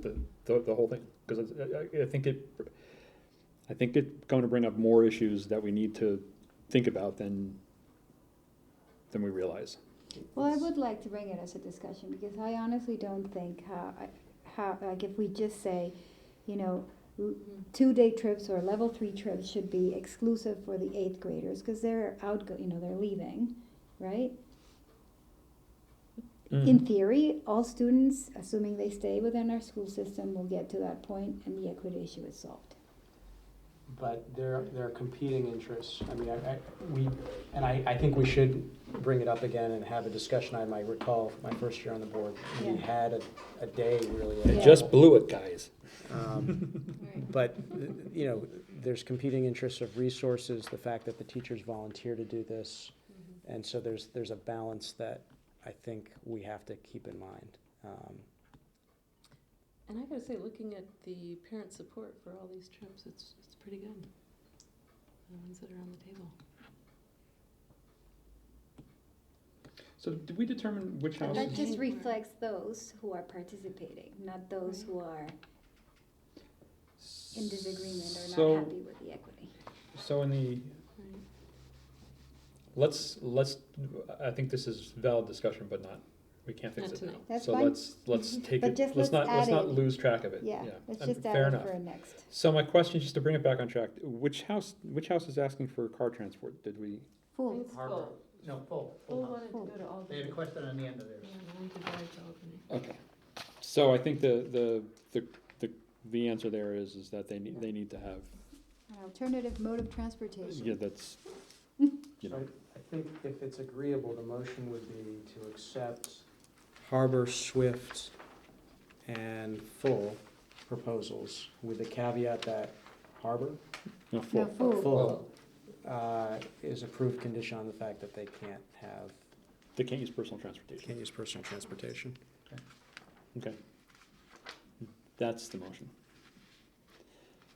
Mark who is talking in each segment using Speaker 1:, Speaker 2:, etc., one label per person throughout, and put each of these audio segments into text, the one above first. Speaker 1: the, the whole thing, because I, I- I think it, I think it's going to bring up more issues that we need to think about than, than we realize.
Speaker 2: Well, I would like to bring it as a discussion because I honestly don't think how, how, like if we just say, you know,
Speaker 1: Mm-hmm.
Speaker 2: two-day trips or level three trips should be exclusive for the eighth graders because they're outgo, you know, they're leaving, right?
Speaker 1: Mm-hmm.
Speaker 3: Mm.
Speaker 2: In theory, all students, assuming they stay within our school system, will get to that point and the equity issue is solved.
Speaker 3: But there, there are competing interests. I mean, I, I, we, and I, I think we should bring it up again and have a discussion. I might recall my first year on the board, we
Speaker 2: Yeah.
Speaker 3: had a, a day really.
Speaker 2: It
Speaker 1: It
Speaker 2: Yeah.
Speaker 1: just blew it, guys.
Speaker 3: Um, But, you know, there's competing interests of resources, the fact that the teachers volunteer to do this.
Speaker 1: Mm-hmm.
Speaker 3: And so there's, there's a balance that I think we have to keep in mind. Um,
Speaker 4: And I gotta say, looking at the parent support for all these trips, it's, it's pretty good. The ones that are on the table.
Speaker 5: So did we determine which
Speaker 4: That
Speaker 5: house?
Speaker 2: That just
Speaker 4: just
Speaker 2: reflects
Speaker 4: reflects
Speaker 2: those who are participating, not those
Speaker 4: those
Speaker 2: who are in disagreement or
Speaker 5: So-
Speaker 2: not happy with the equity.
Speaker 5: So in the,
Speaker 4: right?
Speaker 1: Let's, let's, I think this is valid discussion, but not, we can't fix
Speaker 4: Not
Speaker 1: it now.
Speaker 4: tonight.
Speaker 2: That's
Speaker 1: So
Speaker 2: fine. Mm-hmm.
Speaker 1: let's, let's take
Speaker 2: But
Speaker 1: it, let's
Speaker 2: just let's
Speaker 1: not, let's
Speaker 2: add
Speaker 1: not
Speaker 2: it.
Speaker 1: lose track of it.
Speaker 2: Yeah, let's
Speaker 1: And
Speaker 2: just
Speaker 1: fair
Speaker 2: add it
Speaker 1: enough.
Speaker 2: for a next.
Speaker 1: So my question, just to bring it back on track, which house, which house is asking for car transport? Did we?
Speaker 2: Fools.
Speaker 6: Harbor, no, full, full house.
Speaker 4: wanted to go to all
Speaker 6: They had a question on the end of theirs.
Speaker 1: Okay. So I think the, the, the, the, the answer there is, is that they need, they need to have,
Speaker 2: An alternative mode of transportation.
Speaker 1: yeah, that's, you
Speaker 3: So
Speaker 1: know,
Speaker 3: I think if it's agreeable, the motion would be to accept Harbor, Swift, and Full proposals with the caveat that Harbor,
Speaker 1: no,
Speaker 2: No,
Speaker 1: full.
Speaker 2: fool.
Speaker 3: Full, uh, is approved condition on the fact that they can't have,
Speaker 1: They can't use personal transportation.
Speaker 3: can't use personal transportation.
Speaker 1: Okay. That's the motion.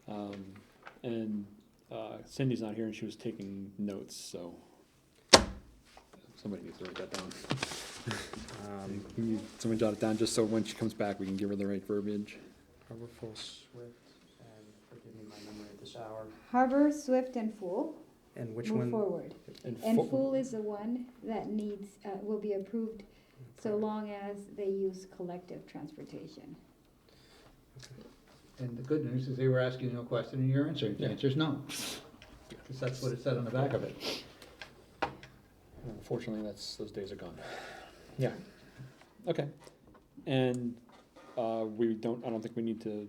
Speaker 1: Um, and, uh, Cindy's not here and she was taking notes, so somebody needs to write that down.
Speaker 3: Um,
Speaker 1: Can you- Someone jot it down, just so when she comes back, we can give her the right verbiage.
Speaker 3: Harbor, Full, Swift, and forgive me my memory at this hour.
Speaker 2: Harbor, Swift, and Fool
Speaker 3: And which
Speaker 2: move
Speaker 3: one?
Speaker 2: forward. And
Speaker 1: full.
Speaker 2: Fool is the one that needs, uh, will be approved so long as they use collective transportation.
Speaker 6: And the good news is they were asking you a question and you're answering. The
Speaker 1: Yeah.
Speaker 6: answer's no. Because that's what it said on the back of it.
Speaker 1: Unfortunately, that's, those days are gone. Yeah, okay. And, uh, we don't, I don't think we need to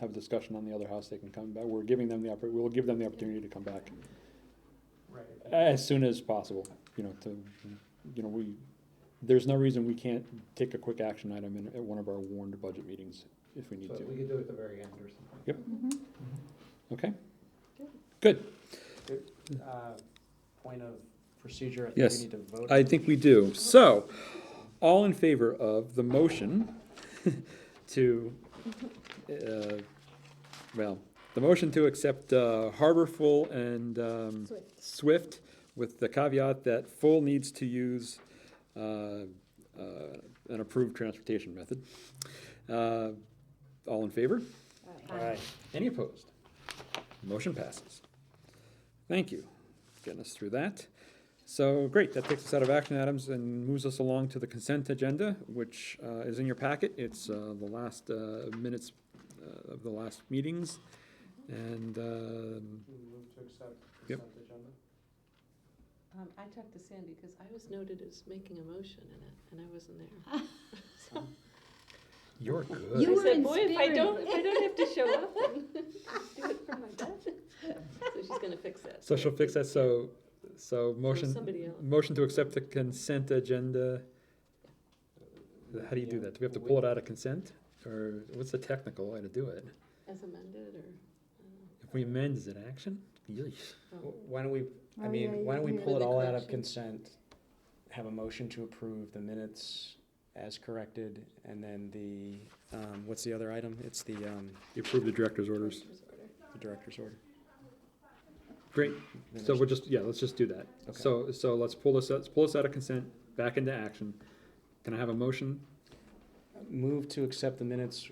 Speaker 1: have a discussion on the other house, they can come back, we're giving them the oppor, we'll give them the opportunity to come back
Speaker 3: Right.
Speaker 1: as soon as possible, you know, to, you know, we, there's no reason we can't take a quick action item in, at one of our warned budget meetings if we need
Speaker 6: So
Speaker 1: to,
Speaker 6: we could do it at the very end or something.
Speaker 1: okay?
Speaker 4: Good.
Speaker 1: Good,
Speaker 3: Uh, Point of procedure, I think we
Speaker 1: Yes.
Speaker 3: need to vote.
Speaker 1: I think we do. So, all in favor of the motion to, uh, well, the motion to accept uh, Harbor Full and um,
Speaker 2: Swift.
Speaker 1: Swift with the caveat that Full needs to use uh, uh, an approved transportation method. Uh, All in favor?
Speaker 3: Aye.
Speaker 1: Any opposed? Motion passes. Thank you. Getting us through that. So, great, that takes us out of action items and moves us along to the consent agenda, which uh, is in your packet. It's uh, the last uh, minutes uh, of the last meetings. And, um,
Speaker 3: Move to accept
Speaker 1: Yep.
Speaker 3: consent agenda?
Speaker 4: Um, I talked to Sandy, cause I was noted as making a motion in it, and I wasn't there.
Speaker 1: you're good.
Speaker 2: You
Speaker 4: I
Speaker 2: were
Speaker 4: said,
Speaker 2: in
Speaker 4: boy, if I
Speaker 2: spirit."
Speaker 4: don't, if I don't have to show up and do it from my bed. So she's gonna fix that.
Speaker 1: So she'll fix that, so, so motion,
Speaker 4: Somebody else.
Speaker 1: motion to accept the consent agenda. How do you do that? Do we have to pull it out of consent? Or what's the technical way to do it?
Speaker 4: As amended or?
Speaker 1: If we amend, is it action? Yeesh.
Speaker 4: I don't know.
Speaker 3: W- Why don't we, I
Speaker 2: Oh, yeah,
Speaker 3: mean, why don't we
Speaker 2: yeah.
Speaker 3: pull
Speaker 4: With
Speaker 3: it
Speaker 4: the
Speaker 3: all out of
Speaker 4: corrections.
Speaker 3: consent, have a motion to approve the minutes as corrected, and then the, um, what's the other item? It's the, um,
Speaker 1: You approve the director's orders.
Speaker 4: Director's order.
Speaker 3: the director's order.
Speaker 1: Great,
Speaker 3: Then
Speaker 1: so
Speaker 3: there's-
Speaker 1: we'll just, yeah, let's just do that.
Speaker 3: Okay.
Speaker 1: So, so let's pull this, let's pull this out of consent, back into action. Can I have a motion
Speaker 3: Move to accept the minutes